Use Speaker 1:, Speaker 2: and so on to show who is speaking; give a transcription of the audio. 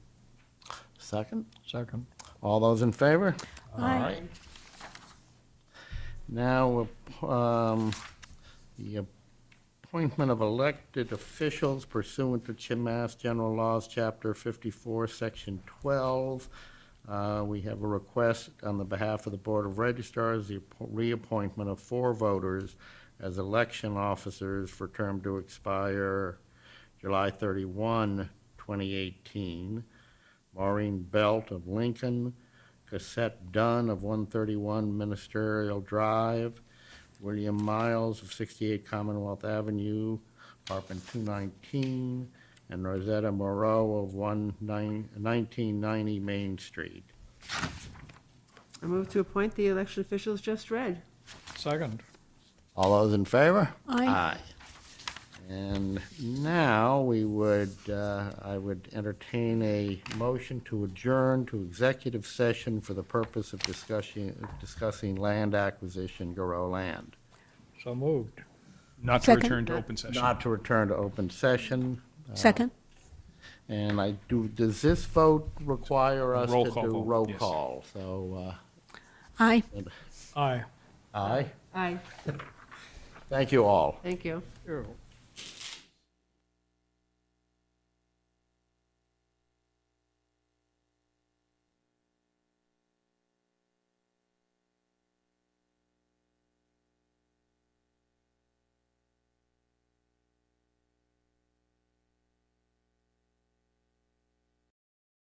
Speaker 1: Second?
Speaker 2: Second.
Speaker 1: All those in favor?
Speaker 3: Aye.
Speaker 1: Now, um, the appointment of elected officials pursuant to Chin Mass General Laws, Chapter 54, Section 12. Uh, We have a request on the behalf of the Board of Registrars, the appo- reappointment of four voters as election officers for term to expire July 31, 2018. Maureen Belt of Lincoln, Cassette Dunn of 131 Ministerial Drive, William Miles of 68 Commonwealth Avenue, apartment 219, and Rosetta Moreau of 1990 Main Street.
Speaker 3: I move to appoint the election officials just read.
Speaker 2: Second.
Speaker 1: All those in favor?
Speaker 4: Aye.
Speaker 1: And now we would, uh, I would entertain a motion to adjourn to executive session for the purpose of discussing, discussing land acquisition, Garo land.
Speaker 2: So moved.
Speaker 5: Not to
Speaker 4: Second.
Speaker 5: return to open session.
Speaker 1: Not to return to open session.
Speaker 4: Second?
Speaker 1: And I do, does this vote require us
Speaker 5: Roll
Speaker 1: to
Speaker 5: call
Speaker 1: do
Speaker 5: vote,
Speaker 1: roll
Speaker 5: yes.
Speaker 1: call? So,
Speaker 4: Aye.
Speaker 2: Aye.
Speaker 1: uh, aye.
Speaker 3: Aye,
Speaker 1: Thank you all.
Speaker 3: thank you.
Speaker 2: Ew.